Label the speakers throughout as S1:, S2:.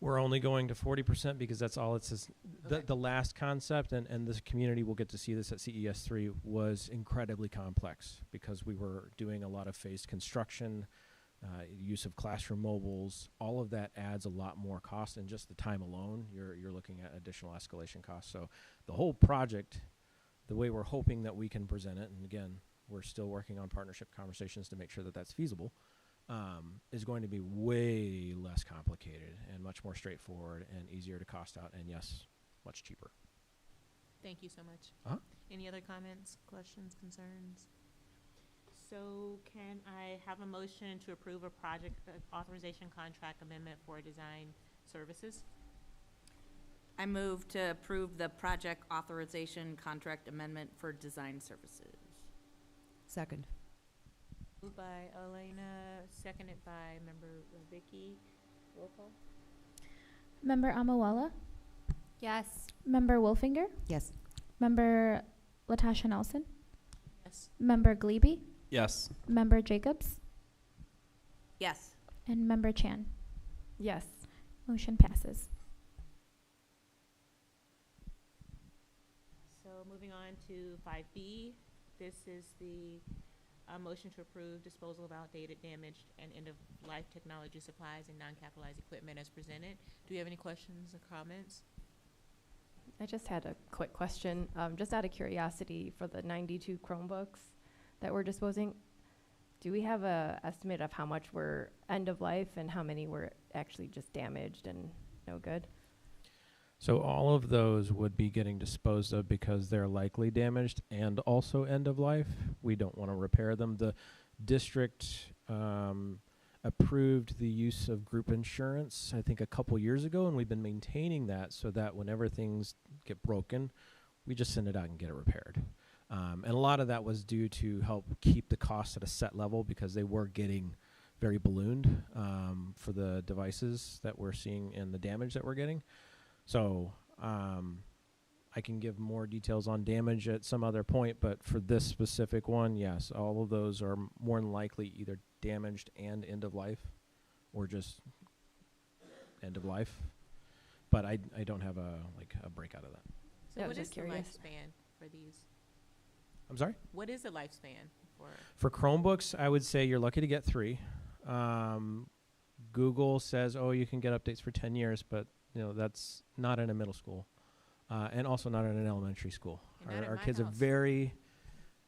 S1: we're only going to 40% because that's all it says. The,
S2: Okay.
S1: the last concept, and, and this community will get to see this at CES3, was incredibly complex because we were doing a lot of phased construction, uh, use of classroom mobiles. All of that adds a lot more cost, and just the time alone, you're, you're looking at additional escalation costs. So the whole project, the way we're hoping that we can present it, and again, we're still working on partnership conversations to make sure that that's feasible um, is going to be way less complicated and much more straightforward and easier to cost out and yes, much cheaper.
S2: Thank you so much.
S1: Uh-huh.
S2: Any other comments, questions, concerns? So can I have a motion to approve a project uh, authorization contract amendment for design services?
S3: I move to approve the project authorization contract amendment for design services.
S4: Second.
S2: Moved by Elena, seconded by member Vicky. Roll call?
S5: Member Amawala? Yes. Member Wolfinger?
S4: Yes.
S5: Member Latasha Nelson?
S2: Yes.
S5: Member Glebe?
S6: Yes.
S5: Member Jacobs?
S3: Yes.
S5: And Member Chan?
S4: Yes.
S5: Motion passes.
S2: So moving on to five B, this is the, uh, motion to approve disposal of outdated, damaged, and end-of-life technology supplies and non-capitalized equipment as presented. Do you have any questions or comments?
S7: I just had a quick question, um, just out of curiosity, for the ninety-two Chromebooks that we're disposing, do we have a estimate of how much were end of life and how many were actually just damaged and no good?
S1: So all of those would be getting disposed of because they're likely damaged and also end of life. We don't want to repair them. The district um, approved the use of group insurance, I think, a couple years ago, and we've been maintaining that so that whenever things get broken, we just send it out and get it repaired. Um, and a lot of that was due to help keep the cost at a set level because they were getting very ballooned um, for the devices that we're seeing and the damage that we're getting. So um, I can give more details on damage at some other point, but for this specific one, yes, all of those are m- more than likely either damaged and end of life, or just end of life. But I I don't have a like a breakout of that.
S2: So
S7: Yeah, I
S2: what
S7: was
S2: is
S7: just
S2: the
S7: curious.
S2: lifespan for these?
S1: I'm sorry.
S2: What is the lifespan for?
S1: For Chromebooks, I would say you're lucky to get three. Um, Google says, oh, you can get updates for 10 years, but you know that's not in a middle school, uh, and also not in an elementary school.
S2: And not
S1: Our,
S2: at
S1: our
S2: my
S1: kids are
S2: house.
S1: very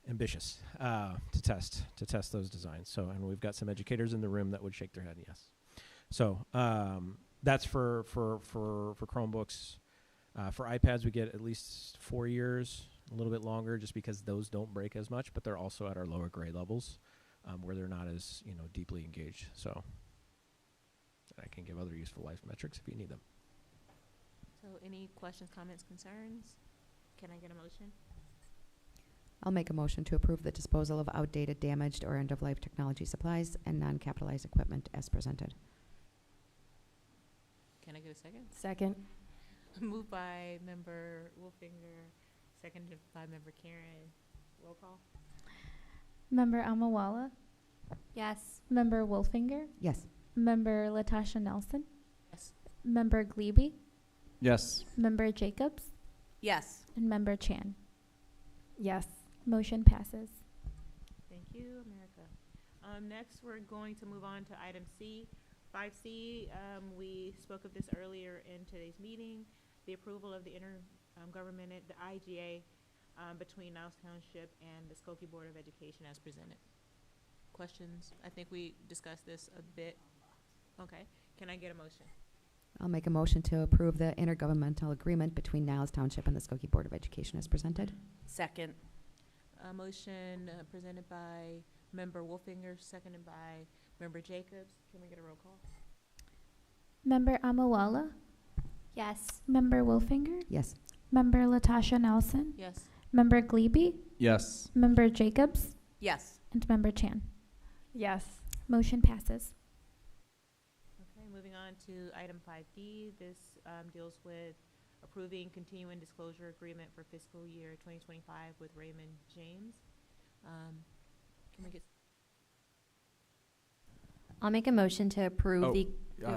S1: ambitious uh, to test to test those designs. So, and we've got some educators in the room that would shake their head yes. So um, that's for for for for Chromebooks. Uh, for iPads, we get at least four years, a little bit longer, just because those don't break as much, but they're also at our lower grade levels, um, where they're not as you know deeply engaged. So I can give other useful life metrics if you need them.
S2: So any questions, comments, concerns? Can I get a motion?
S4: I'll make a motion to approve the disposal of outdated, damaged, or end-of-life technology supplies and non-capitalized equipment as presented.
S2: Can I get a second?
S7: Second.
S2: Moved by member Wolfinger, seconded by member Karen. Roll call?
S5: Member Amawala? Yes. Member Wolfinger?
S4: Yes.
S5: Member Latasha Nelson?
S2: Yes.
S5: Member Glebe?
S6: Yes.
S5: Member Jacobs?
S3: Yes.
S5: And Member Chan?
S7: Yes.
S5: Motion passes.
S2: Thank you, America. Um, next, we're going to move on to item C. Five C, um, we spoke of this earlier in today's meeting, the approval of the intergovernment, the IGA, um, between Niles Township and the Skokie Board of Education as presented. Questions? I think we discussed this a bit. Okay, can I get a motion?
S4: I'll make a motion to approve the intergovernmental agreement between Niles Township and the Skokie Board of Education as presented.
S3: Second.
S2: A motion uh, presented by member Wolfinger, seconded by member Jacobs. Can we get a roll call?
S5: Member Amawala? Yes. Member Wolfinger?
S4: Yes.
S5: Member Latasha Nelson?
S2: Yes.
S5: Member Glebe?
S6: Yes.
S5: Member Jacobs?
S3: Yes.
S5: And Member Chan?
S7: Yes.
S5: Motion passes.
S2: Okay, moving on to item five D, this, um, deals with approving continuing disclosure agreement for fiscal year twenty twenty-five with Raymond James. Um, can we get
S8: I'll make a motion to
S6: Oh,
S8: approve the
S6: uh,